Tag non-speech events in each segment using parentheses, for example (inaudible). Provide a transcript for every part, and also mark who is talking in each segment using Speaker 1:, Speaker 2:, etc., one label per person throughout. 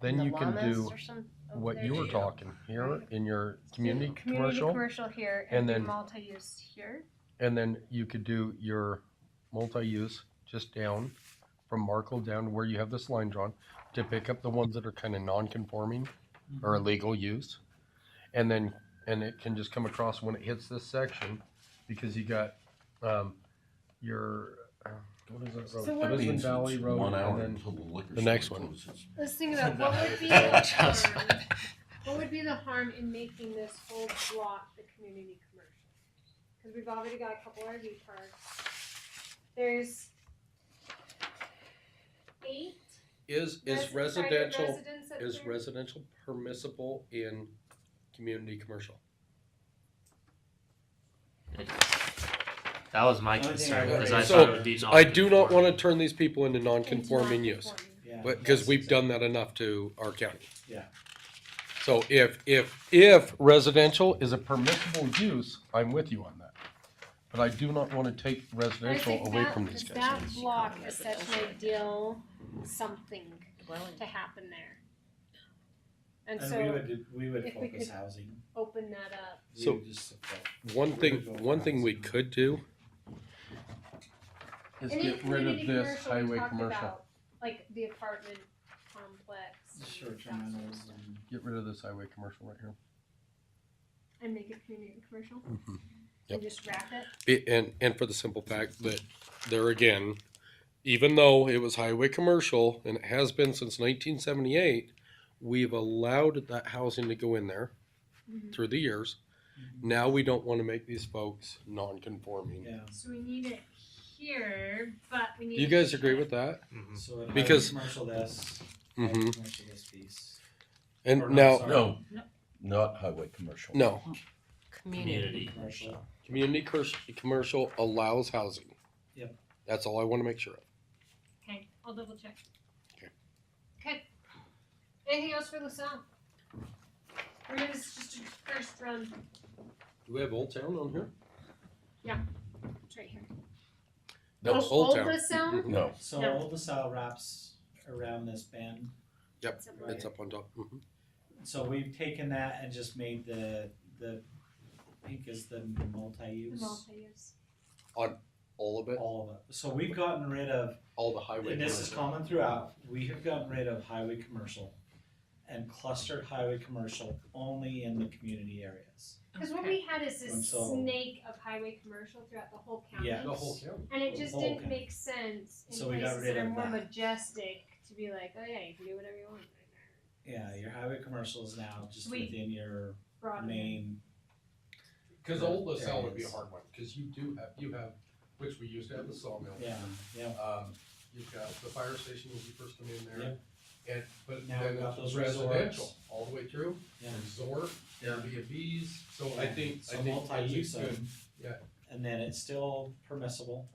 Speaker 1: Then
Speaker 2: the
Speaker 1: you can
Speaker 2: llamas
Speaker 1: do
Speaker 2: or some- over
Speaker 1: what
Speaker 2: there.
Speaker 1: you were
Speaker 3: Yeah.
Speaker 1: talking here in your community
Speaker 4: Community
Speaker 1: commercial.
Speaker 4: commercial here
Speaker 1: and
Speaker 4: and then
Speaker 1: then-
Speaker 4: multi-use here.
Speaker 1: And then you could do your multi-use just down from Markle down to where you have this line drawn to pick up the ones that are kind of non-conforming or illegal use. And then, and it can just come across when it hits this section because you got, um, your, uh, what is that road?
Speaker 4: So what-
Speaker 1: Lisbon
Speaker 3: Means
Speaker 1: Valley
Speaker 3: it's
Speaker 1: Road
Speaker 3: one
Speaker 1: and
Speaker 3: hour
Speaker 1: then-
Speaker 3: until the liquor
Speaker 1: the
Speaker 3: store
Speaker 1: next one.
Speaker 3: closes.
Speaker 4: Let's think about what would be the harm, what would be the harm in making this whole block the community commercial? Cause we've already got a couple RV parks. There's eight
Speaker 1: Is,
Speaker 4: res-
Speaker 1: is
Speaker 4: private
Speaker 1: residential,
Speaker 4: residents up
Speaker 1: is
Speaker 4: there.
Speaker 1: residential permissible in community commercial?
Speaker 5: That was my
Speaker 6: The only thing
Speaker 5: concern
Speaker 6: I
Speaker 5: because
Speaker 6: would-
Speaker 5: I
Speaker 1: So,
Speaker 5: thought it would be non
Speaker 1: I do not want to turn these people into
Speaker 4: Into
Speaker 1: non-conforming use.
Speaker 4: non-conforming.
Speaker 6: Yeah,
Speaker 1: But, because
Speaker 6: that's
Speaker 1: we've
Speaker 6: exact-
Speaker 1: done that enough to our county.
Speaker 6: Yeah.
Speaker 1: So if, if, if residential is a permissible use, I'm with you on that. But I do not wanna take
Speaker 4: I
Speaker 1: residential
Speaker 4: think
Speaker 1: away
Speaker 4: that-
Speaker 1: from these guys.
Speaker 4: That block is such an ideal something to happen there. And
Speaker 6: And we
Speaker 4: so
Speaker 6: would, we would
Speaker 4: if we
Speaker 6: focus
Speaker 4: could-
Speaker 6: housing.
Speaker 4: open that up.
Speaker 6: We
Speaker 1: So-
Speaker 6: would just support-
Speaker 1: One thing, one thing we could do is
Speaker 4: And in
Speaker 1: get rid of
Speaker 4: community
Speaker 1: this
Speaker 4: commercial, we
Speaker 1: highway
Speaker 4: talked
Speaker 1: commercial.
Speaker 4: about, Like the apartment complex. and
Speaker 6: Short-term
Speaker 4: that sort of
Speaker 6: rentals
Speaker 4: stuff.
Speaker 6: and.
Speaker 1: Get rid of this highway commercial right here.
Speaker 4: And make it community commercial
Speaker 1: Yep.
Speaker 4: and just wrap it.
Speaker 1: Be- And, and for the simple fact that there again, even though it was highway commercial and it has been since nineteen seventy-eight, we've allowed that housing to go in there through the years. Now we don't wanna make these folks non-conforming.
Speaker 6: Yeah.
Speaker 4: So we need it here, but we
Speaker 1: Do
Speaker 4: need.
Speaker 1: you guys agree with that?
Speaker 5: Mhm.
Speaker 6: So it
Speaker 1: Because-
Speaker 6: highlights commercial this,
Speaker 1: Mm-hmm.
Speaker 6: highlights commercial this piece. Or
Speaker 1: And
Speaker 6: no,
Speaker 1: now,
Speaker 6: sorry.
Speaker 3: No, not highway commercial.
Speaker 1: no,
Speaker 5: community.
Speaker 6: Commercial.
Speaker 1: community cur- commercial allows housing.
Speaker 6: Yep.
Speaker 1: That's all I wanna make sure of.
Speaker 4: Okay, I'll double check.
Speaker 1: Okay.
Speaker 4: Okay. Anything else for LaSalle? Or is this just a first run?
Speaker 1: Do we have Old Town on here?
Speaker 4: It's right here.
Speaker 1: No,
Speaker 4: Oh,
Speaker 1: Old Town.
Speaker 4: LaSalle?
Speaker 1: Mhm.
Speaker 3: No,
Speaker 6: So
Speaker 4: Yeah.
Speaker 6: all the cell wraps around this bend.
Speaker 1: Yep,
Speaker 4: Something
Speaker 1: it's up on top. Mhm.
Speaker 6: So we've taken that and just made the, the, I think is the
Speaker 4: The
Speaker 6: multi-use,
Speaker 4: multi-use.
Speaker 1: All of it,
Speaker 6: all of it. So we've gotten rid of
Speaker 1: all the highway.
Speaker 6: And this is
Speaker 1: commercial.
Speaker 6: common throughout, we have gotten rid of highway commercial and clustered highway commercial only in the community areas.
Speaker 4: Cause what we had is
Speaker 6: And
Speaker 4: this
Speaker 6: so-
Speaker 4: snake of highway commercial throughout the whole county.
Speaker 6: Yeah.
Speaker 1: The whole town.
Speaker 4: And it just
Speaker 6: whole
Speaker 4: didn't
Speaker 6: county.
Speaker 4: make sense in
Speaker 6: So we got
Speaker 4: places
Speaker 6: rid
Speaker 4: that are
Speaker 6: of
Speaker 4: more
Speaker 6: that.
Speaker 4: majestic to be like, oh yeah, you can do whatever you want. right
Speaker 6: Yeah, your highway commercial is now just
Speaker 4: We-
Speaker 6: within your
Speaker 4: there. Broad.
Speaker 6: main,
Speaker 1: Cause Old LaSalle would be a
Speaker 6: Areas.
Speaker 1: hard one, cause you do have, you have, which we used to have the sawmill.
Speaker 6: yeah, yeah.
Speaker 1: Um, you've got the fire station when you first come in there. And, but
Speaker 6: Now
Speaker 1: then
Speaker 6: we've got
Speaker 1: it's
Speaker 6: those
Speaker 1: residential,
Speaker 6: resorts.
Speaker 1: all the way through,
Speaker 6: Yeah.
Speaker 1: resort, Airbnbs, so I think, I
Speaker 6: So
Speaker 1: think
Speaker 6: multi-use
Speaker 1: that's a
Speaker 6: of.
Speaker 1: good. yeah. Mm-hmm.
Speaker 6: And then it's still permissible,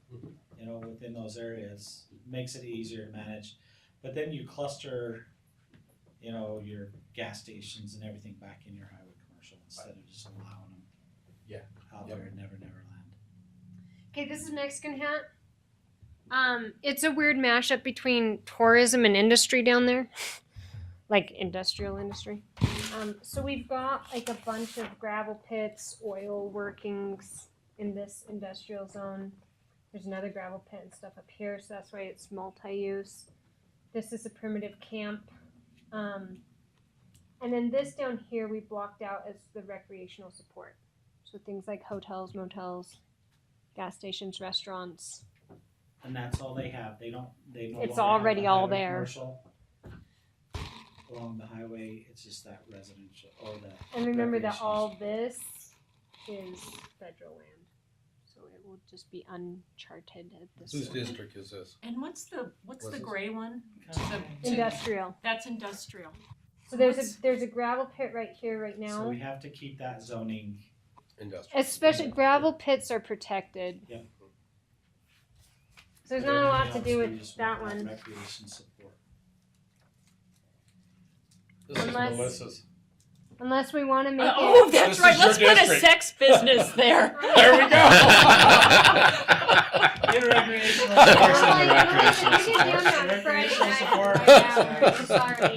Speaker 6: you know, within those areas, makes it easier to manage. But then you cluster, you know, your gas stations and everything back in your highway commercial instead of just allowing them.
Speaker 1: Yeah.
Speaker 6: Out
Speaker 1: Yep.
Speaker 6: there in Never Never Land.
Speaker 4: Okay, this is Mexican hat. Um, it's a weird mashup between tourism and industry down there, (laughs) like industrial industry. Um, so we've got like a bunch of gravel pits, oil workings in this industrial zone. There's another gravel pit and stuff up here, so that's why it's multi-use. This is a primitive camp. Um, and then this down here we blocked out as the recreational support. So things like hotels, motels, gas stations, restaurants.
Speaker 6: And that's all they have, they don't, they no longer.
Speaker 4: It's
Speaker 6: have
Speaker 4: already
Speaker 6: the
Speaker 4: all
Speaker 6: highway
Speaker 4: there.
Speaker 6: commercial Along the highway, it's just that residential, or the,
Speaker 4: And remember that
Speaker 6: Recreations.
Speaker 4: all this is federal land. So it will just be uncharted at this
Speaker 1: Whose
Speaker 4: point.
Speaker 1: district is this?
Speaker 7: And what's the, what's
Speaker 1: What's
Speaker 7: the
Speaker 1: this?
Speaker 7: gray one? To-
Speaker 4: Industrial.
Speaker 7: That's industrial.
Speaker 4: So there's a there's a gravel pit right here right
Speaker 6: so
Speaker 4: now.
Speaker 6: we have to keep that zoning,
Speaker 1: Industrial.
Speaker 4: Especially gravel pits are protected.
Speaker 6: Yep.
Speaker 4: So there's not a lot to do
Speaker 6: Everything
Speaker 4: with
Speaker 6: else we just
Speaker 4: that
Speaker 6: want
Speaker 4: one.
Speaker 6: Recreation (laughs) support.
Speaker 1: This is
Speaker 4: Unless-
Speaker 1: Melissa's.
Speaker 4: Unless we want to make
Speaker 7: (laughs) Oh,
Speaker 4: it
Speaker 7: that's
Speaker 1: This
Speaker 7: right,
Speaker 1: is your
Speaker 7: let's put a
Speaker 1: district.
Speaker 7: sex business
Speaker 4: (laughs)
Speaker 7: there.
Speaker 1: There we (laughs) go.
Speaker 4: (laughs)
Speaker 6: In recreational.
Speaker 4: Oh,
Speaker 6: support.
Speaker 4: I know, I think you can do that Friday night.
Speaker 6: Recreation support.
Speaker 4: Yeah, I'm sorry.